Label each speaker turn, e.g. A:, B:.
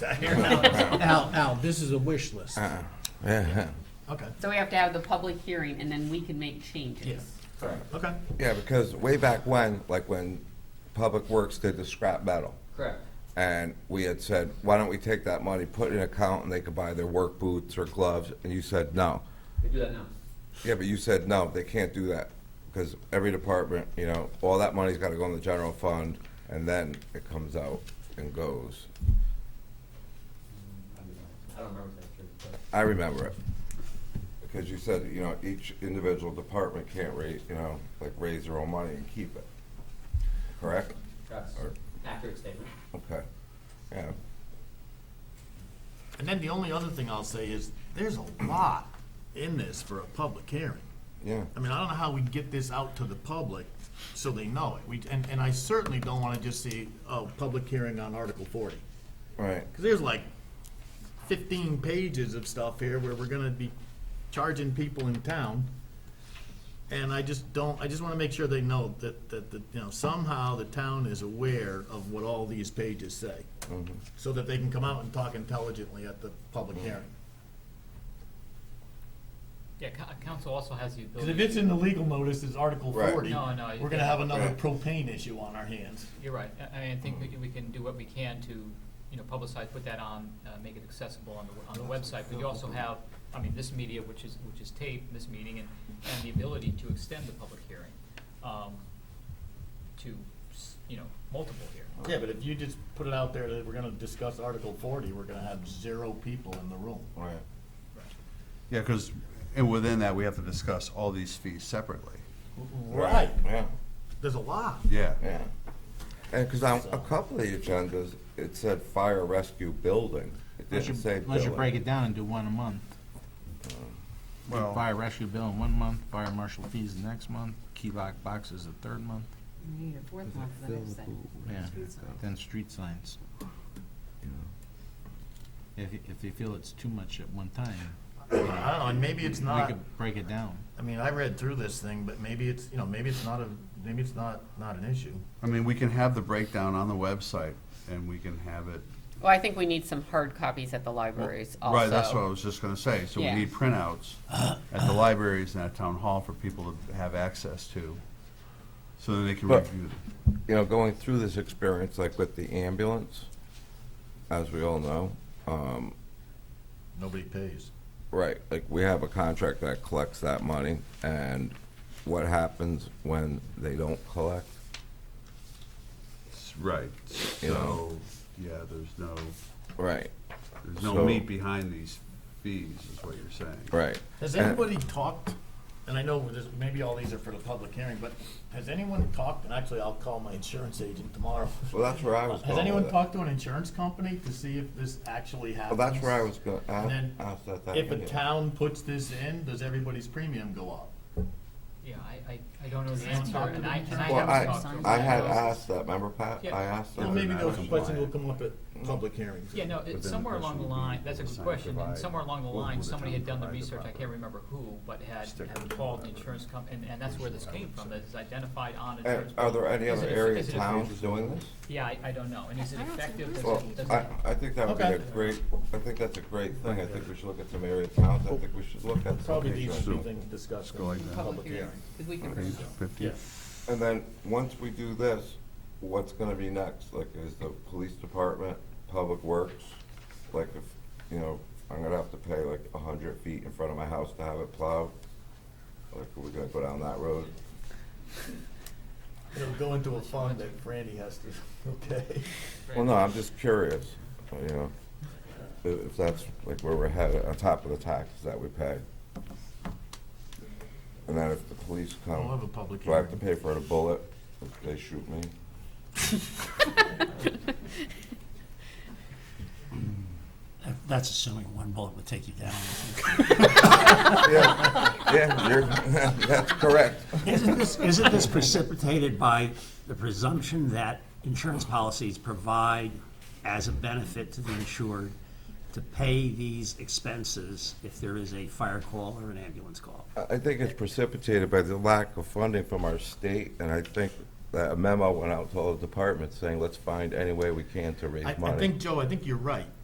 A: Al, Al, this is a wish list.
B: Uh-uh. Yeah,
A: Okay,
C: So we have to have the public hearing and then we can make changes.
A: Yeah.
D: Correct,
A: okay.
B: yeah, because way back when, like when Public Works did the scrap metal,
D: correct.
B: and we had said, why don't we take that money, put it in an account, and they could buy their work boots or gloves, and you said no.
D: They do that now.
B: Yeah, but you said no, they can't do that, because every department, you know, all that money's gotta go in the general fund, and then it comes out and goes.
D: I don't remember if that's true, but.
B: I remember it. Because you said, you know, each individual department can't raise, you know, like raise their own money and keep it. Correct?
D: That's
B: Or-
D: accurate statement.
B: Okay. Yeah.
A: And then the only other thing I'll say is, there's a lot in this for a public hearing.
B: Yeah.
A: I mean, I don't know how we get this out to the public so they know it. We, and, and I certainly don't wanna just see, oh, public hearing on Article forty.
B: Right.
A: Cause there's like fifteen pages of stuff here where we're gonna be charging people in town. And I just don't, I just wanna make sure they know that, that, that, you know, somehow the town is aware of what all these pages say.
B: Mm-hmm.
A: So that they can come out and talk intelligently at the public hearing.
E: Yeah, co- council also has the
A: Cause if
E: ability,
A: it's in the legal notice, it's Article
B: Right.
A: forty,
E: No, no,
A: we're gonna have another
B: Right.
A: propane issue on our hands.
E: you're right, I- I mean, I think we can- we can do what we can to, you know, publicize, put that on, uh, make it accessible on the, on the website, but you also have, I mean, this media, which is, which is taped, this meeting, and, and the ability to extend the public hearing, um, to, s- you know, multiple hearings.
A: Yeah, but if you just put it out there that we're gonna discuss Article forty, we're gonna have zero people in the room.
B: Right.
F: Yeah, because, and within that, we have to discuss all these fees separately.
A: Right,
B: Yeah.
A: there's a lot.
F: Yeah.
B: Yeah. And because on a couple of the agendas, it said fire rescue building. It
G: Unless you,
B: didn't say
G: unless you break
B: building.
G: it down and do one a month.
F: Well-
G: Fire rescue bill in one month, fire marshal fees the next month, key lock boxes the third month,
C: You need a fourth one for the next thing.
G: yeah,
C: Street sign.
G: then street signs. If, if they feel it's too much at one time,
A: I don't know, and maybe it's
G: we
A: not,
G: could break it down.
A: I mean, I read through this thing, but maybe it's, you know, maybe it's not a, maybe it's not, not an issue.
F: I mean, we can have the breakdown on the website and we can have it.
C: Well, I think we need some hard copies at the libraries also.
F: Right, that's what I was just gonna say. So we
C: Yeah.
F: need printouts at the libraries and at town hall for people to have access to, so that they can
B: But-
F: review. them.
B: You know, going through this experience, like with the ambulance, as we all know, um,
A: Nobody pays.
B: Right, like we have a contract that collects that money, and what happens when they don't collect?
F: Right,
B: You
F: so,
B: know.
F: yeah, there's no,
B: Right,
F: there's no
B: So-
F: meat behind these fees, is what you're saying.
B: right.
A: Has
B: And-
A: anybody talked, and I know this, maybe all these are for the public hearing, but has anyone talked, and actually I'll call my insurance agent tomorrow.
B: Well, that's where I was going
A: Has anyone
B: with it.
A: talked to an insurance company to see if this actually
B: Well,
A: happens?
B: that's where I was going,
A: And then
B: ask that that.
A: If a
B: idiot.
A: town puts this in, does everybody's premium go up?
E: Yeah, I, I, I don't know the
C: Does
E: answer,
C: anyone talk to
E: and
C: the
E: I, and I
C: insurance
B: Well,
E: haven't talked to.
B: I,
C: them.
B: I had
E: them.
B: asked that, remember Pat?
E: Yeah.
B: I asked
E: Yeah,
B: them.
A: maybe
B: and I
A: those
B: was
A: questions will
B: like-
A: come up at public hearings.
E: Yeah, no, it-
F: But then
E: somewhere
F: the
E: along the
F: question would
E: line,
F: be,
E: that's a good
F: sign
E: question, and
F: provide,
E: somewhere along the
F: will- will
E: line,
F: the
E: somebody
F: town
E: had done the
F: provide the
E: research, I
F: property?
E: can't remember who, but had,
F: Sticker
E: had
F: or
E: called the
F: whatever.
E: insurance company, and, and that's where this came from, that is identified on insurance.
B: And are there
E: company.
B: any
E: Is
B: other
E: it- is
B: area
E: it- is it-
B: towns doing this?
E: Yeah, I, I don't know, and is it
C: I don't see
E: effective?
C: this.
E: Does it-
B: Well,
E: does it-
B: I, I think that would be a
A: Okay.
B: great, I think that's a great thing. I think we should look at some area towns. I think we should look at. some
A: Probably these
B: people.
A: two things discussed
F: go
A: in
F: like that.
A: public
C: Public
A: hearing.
C: hearing, because we can bring it.
F: Fifty?
A: Yeah.
B: And then, once we do this, what's gonna be next? Like, is the police department, public works? Like, if, you know, I'm gonna have to pay like a hundred feet in front of my house to have it plowed? Like, are we gonna go down that road?
A: It'll go into a fund that Brandy has to, okay?
B: Well, no, I'm just curious, you know, i- if that's like where we're headed, on top of the taxes that we pay. And then if the police
A: We'll have a
B: come,
A: public
B: do I have to
A: hearing.
B: pay for a bullet if they shoot me?
H: That's assuming one bullet would take you down.
B: Yeah, yeah, you're, that's correct.
H: Isn't this, isn't this precipitated by the presumption that insurance policies provide as a benefit to the insured to pay these expenses if there is a fire call or an ambulance call?
B: I think it's precipitated by the lack of funding from our state, and I think that a memo went out to all the departments saying, let's find any way we can to
A: I,
B: raise
A: I
B: money.
A: think, Joe, I think you're right.